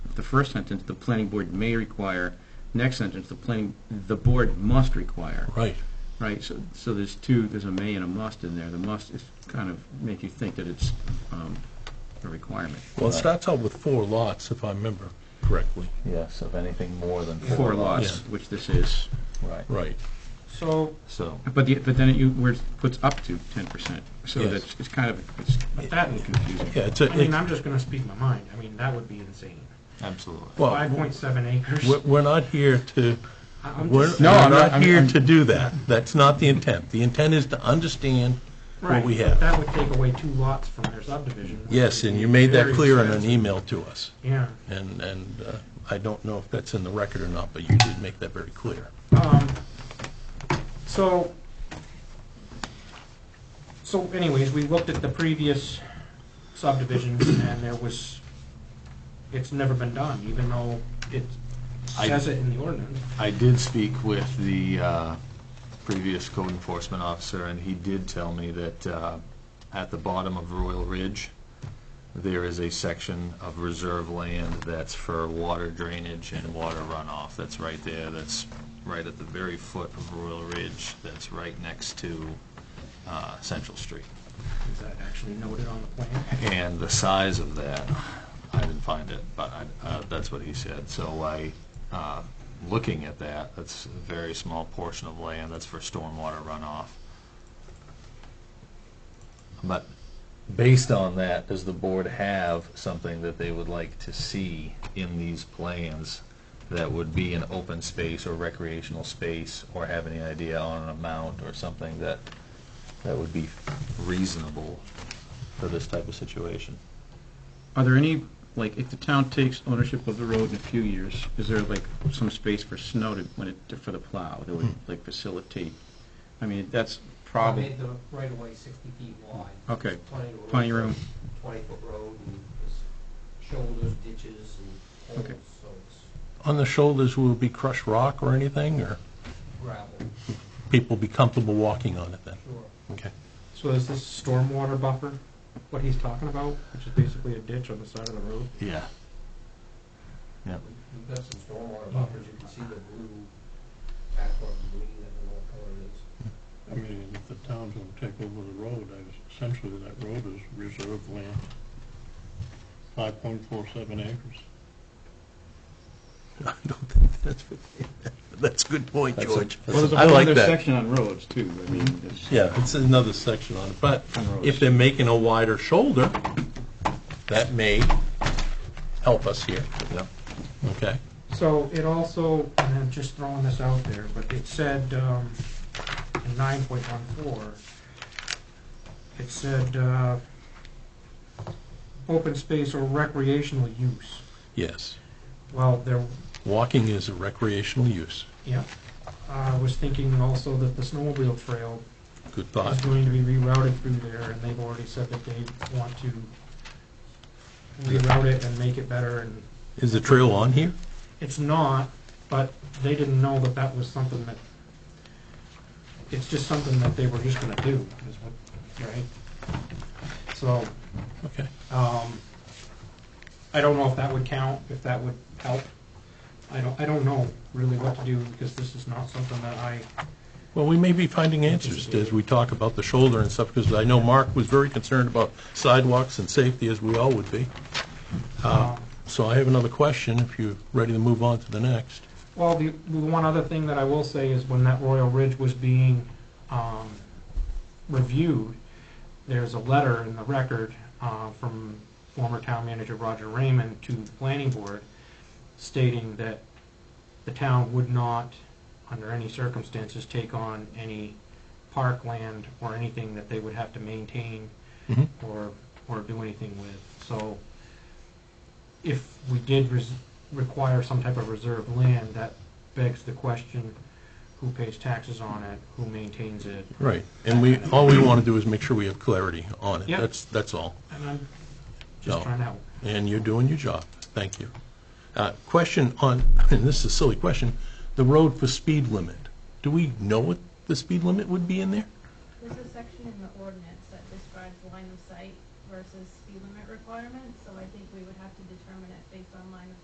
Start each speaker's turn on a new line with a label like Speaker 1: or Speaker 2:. Speaker 1: the first sentence, the planning board may require, next sentence, the planning, the board must require,
Speaker 2: Right.
Speaker 1: right? So, so there's two, there's a may and a must in there. The must is kind of make you think that it's, um, a requirement.
Speaker 2: Well, it starts out with four lots, if I remember correctly.
Speaker 3: Yes, of anything more than
Speaker 1: Four lots,
Speaker 2: Yeah.
Speaker 1: which this is,
Speaker 3: Right,
Speaker 2: Right.
Speaker 4: So,
Speaker 3: so,
Speaker 1: but the, but then it, you, where it puts up to ten percent. So
Speaker 2: Yes.
Speaker 1: that's, it's kind of, it's,
Speaker 4: but that would confuse
Speaker 2: Yeah,
Speaker 4: me.
Speaker 2: it's a,
Speaker 4: I mean,
Speaker 2: it's-
Speaker 4: I'm just gonna speak my mind. I mean, that would be insane.
Speaker 3: absolutely.
Speaker 2: well,
Speaker 4: Five point seven acres.
Speaker 2: we're, we're not here to,
Speaker 4: I- I'm
Speaker 2: we're
Speaker 4: just-
Speaker 1: No,
Speaker 2: we're
Speaker 1: I'm not-
Speaker 2: not
Speaker 1: I'm-
Speaker 2: here
Speaker 1: I'm-
Speaker 2: to do that. That's not the intent. The intent is to understand what
Speaker 4: Right,
Speaker 2: we
Speaker 4: but
Speaker 2: have.
Speaker 4: That would take away two lots from their subdivision. which
Speaker 2: Yes,
Speaker 4: would
Speaker 2: and
Speaker 4: be
Speaker 2: you made that
Speaker 4: very
Speaker 2: clear in an e-
Speaker 4: expensive.
Speaker 2: email to us.
Speaker 4: Yeah.
Speaker 2: And, and uh, I don't know if that's in the record or not, but you did make that very clear.
Speaker 4: Um, so, so anyways, we looked at the previous subdivisions and there was, it's never been done, even though it
Speaker 3: I-
Speaker 4: says it in the ordinance.
Speaker 3: I did speak with the uh, previous code enforcement officer, and he did tell me that uh, at the bottom of Royal Ridge, there is a section of reserve land that's for water drainage and water runoff that's right there, that's right at the very foot of Royal Ridge, that's right next to uh, Central Street.
Speaker 4: Is that actually noted on the plan?
Speaker 3: And the size of that, I didn't find it, but I- uh, that's what he said. So I, uh, looking at that, that's a very small portion of land that's for stormwater runoff. But based on that, does the board have something that they would like to see in these plans that would be an open space or recreational space, or have any idea on an amount or something that, that would be reasonable for this type of situation.
Speaker 1: Are there any, like, if the town takes ownership of the road in a few years, is there like some space for snow to, when it, for the plow that would
Speaker 2: Hmm.
Speaker 1: like facilitate? I mean, that's
Speaker 5: I
Speaker 1: probably,
Speaker 5: made the right of way sixty feet wide.
Speaker 1: Okay.
Speaker 5: Plenty of
Speaker 1: Plenty of room.
Speaker 5: Twenty foot road and there's shoulders, ditches and
Speaker 1: Okay.
Speaker 5: holes, so it's
Speaker 2: On the shoulders, will it be crushed rock or anything, or
Speaker 5: gravel,
Speaker 2: people be comfortable walking on it then?
Speaker 5: sure.
Speaker 2: Okay.
Speaker 4: So is this stormwater buffer, what he's talking about, which is basically a ditch on the side of the road?
Speaker 3: Yeah.
Speaker 5: We've got some stormwater buffers, you can see the blue, background green, I don't know what color it is.
Speaker 6: I mean, if the town's gonna take over the road, I- essentially that road is reserved land, five point four seven acres.
Speaker 2: I don't think that's, that's a good point,
Speaker 3: That's a-
Speaker 2: George.
Speaker 3: Well, there's
Speaker 2: I like that.
Speaker 1: section on roads too, I mean, it's.
Speaker 2: Yeah, it's another section on it, but
Speaker 1: On roads.
Speaker 2: if they're making a wider shoulder, that may help us here,
Speaker 3: Yep.
Speaker 2: okay?
Speaker 4: So it also, and I'm just throwing this out there, but it said, um, in nine point one four, it said, uh, open space or recreational use.
Speaker 2: Yes,
Speaker 4: Well, there,
Speaker 2: walking is a recreational use,
Speaker 4: yeah, I was thinking also that the snowmobile trail
Speaker 2: good
Speaker 4: is
Speaker 2: thought.
Speaker 4: going to be rerouted through there, and they've already said that they want to reroute it and make it better, and
Speaker 2: Is the trail on here?
Speaker 4: it's not, but they didn't know that that was something that, it's just something that they were just gonna do, is what, right? So,
Speaker 2: Okay.
Speaker 4: um, I don't know if that would count, if that would help. I don't, I don't know really what to do, because this is not something that I,
Speaker 2: Well, we may be finding answers as we talk about the shoulder and stuff, because I know Mark was very concerned about sidewalks and safety, as we all would be.
Speaker 4: um,
Speaker 2: So I have another question, if you're ready to move on to the next.
Speaker 4: Well, the, the one other thing that I will say is when that Royal Ridge was being, um, reviewed, there's a letter in the record, uh, from former town manager Roger Raymond to the planning board stating that the town would not, under any circumstances, take on any parkland or anything that they would have to maintain
Speaker 2: Mhm.
Speaker 4: or, or do anything with. So if we did res- require some type of reserve land, that begs the question, who pays taxes on it, who maintains it?
Speaker 2: Right, and we, all we want to do is make sure we have clarity on it.
Speaker 4: Yeah.
Speaker 2: That's, that's all.
Speaker 4: And I'm just
Speaker 2: No.
Speaker 4: trying to help.
Speaker 2: And you're doing your job. Thank you. Uh, Question on, and this is a silly question, the road for speed limit. Do we know what the speed limit would be in there?
Speaker 7: There's a section in the ordinance that describes line of sight versus speed limit requirements, so I think we would have to determine it based on line of